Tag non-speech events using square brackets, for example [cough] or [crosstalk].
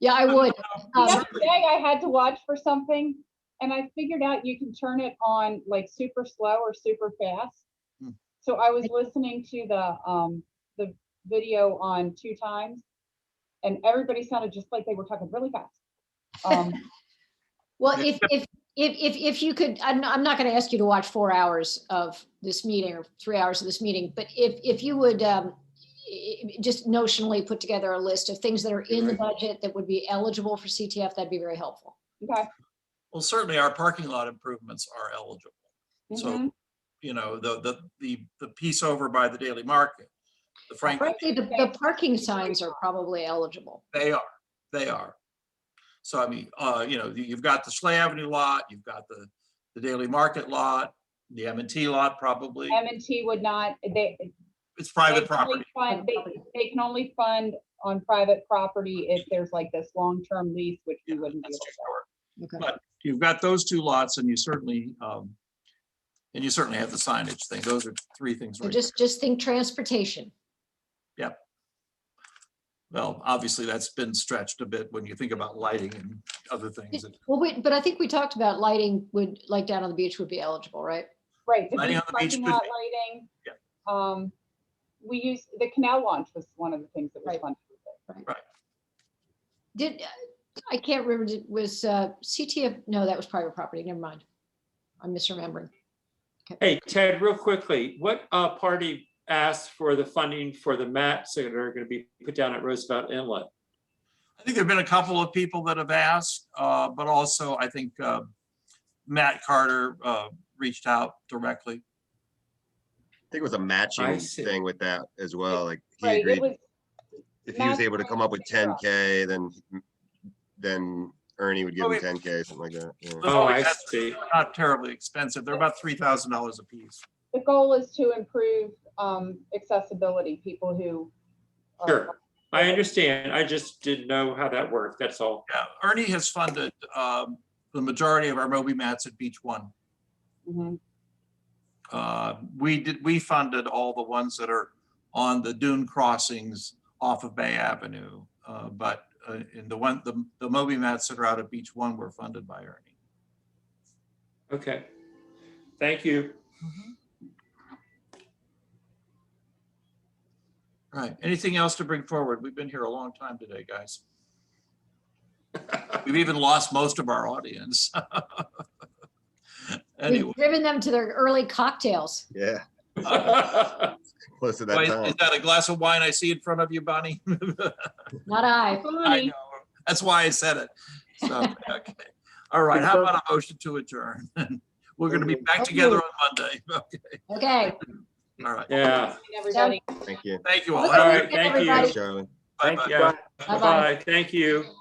Yeah, I would. Um, Next day I had to watch for something and I figured out you can turn it on like super slow or super fast. Hmm. So I was listening to the, um, the video on two times and everybody sounded just like they were talking really fast. Um, Well, if, if, if, if, if you could, I'm, not- I'm not going to ask you to watch four hours of this meeting or three hours of this meeting, but if, if you would um, i- i- just notionally put together a list of things that are in the budget that would be eligible for CTF, that'd be very helpful. okay. Well, certainly our parking lot improvements are eligible. Mhm. So, you know, the, the, the, the piece over by the Daily Market, the Frank, Frankly, the, the parking signs are probably eligible. they are, they are. So I mean, uh, you know, you- you've got the Schley Avenue lot, you've got the, the Daily Market lot, the M and T lot probably. M and T would not, they. It's they private can property. only fund- They, they can only fund on private property if there's like this long-term lease, which we Yeah, wouldn't be able that's to. too short. Okay. You've got those two lots and you certainly, um, and you certainly have the signage thing. Those are three things. So right just, just think transportation. Well, obviously, that's been stretched a bit when you think about lighting and other things. that- Well, wait, but I think we talked about lighting would, like down on the beach would be eligible, right? Right. the Lighting beach on the beach parking could lot be. Lighting. Yeah. Um, we used, the canal launch was one of the things that was Right. funded. with it. Did, I can't remember, did- was uh, CTF, no, that was private property, never mind. I'm misremembering. Hey, Ted, real quickly, what uh, party asked for the funding for the mats that are going to be put down at Roosevelt Inlet? I think there've been a couple of people that have asked, uh, but also I think uh, Matt Carter uh, reached out directly. I think it was a matching see. thing with that as well, like he Right, it agreed, was, if he was matching able to come up with and ten up. K, then, then Ernie would give Oh, him it- ten K, something like that. yeah. Those Oh, always I have- see. they're Not terribly expensive. They're about three thousand dollars a piece. the goal is to improve, um, accessibility, people who. are- Sure. I understand. I just didn't know how that worked. That's all. Yeah, Ernie has funded um, the majority of our Moby mats at Beach One. Mhm. Uh, We did, we funded all the ones that are on the dune crossings off of Bay Avenue. uh, But uh, in the one, the the Moby mats that are out at Beach One were funded by Ernie. Okay. Thank you. [laughs] Mm-hmm. All Right, anything else to bring forward? We've been here a long time today, guys. We've even lost most of our audience. [laughs] Anyway, We've driven them to their early cocktails. Yeah, close to that why- time. is that a glass of wine I see in front of you, Bonnie? [laughs] Not I. I Bonnie, know. That's why I said it. So, okay. All right, how about a motion to adjourn? [laughs] We're gonna be back together on Monday. [laughs] Okay. Okay. All right, Yeah. Everybody. Thank you. thank you all. All Have a All good- right. Thank you. Everybody. Charlie. Thank Bye-bye. you. Bye. Thank you.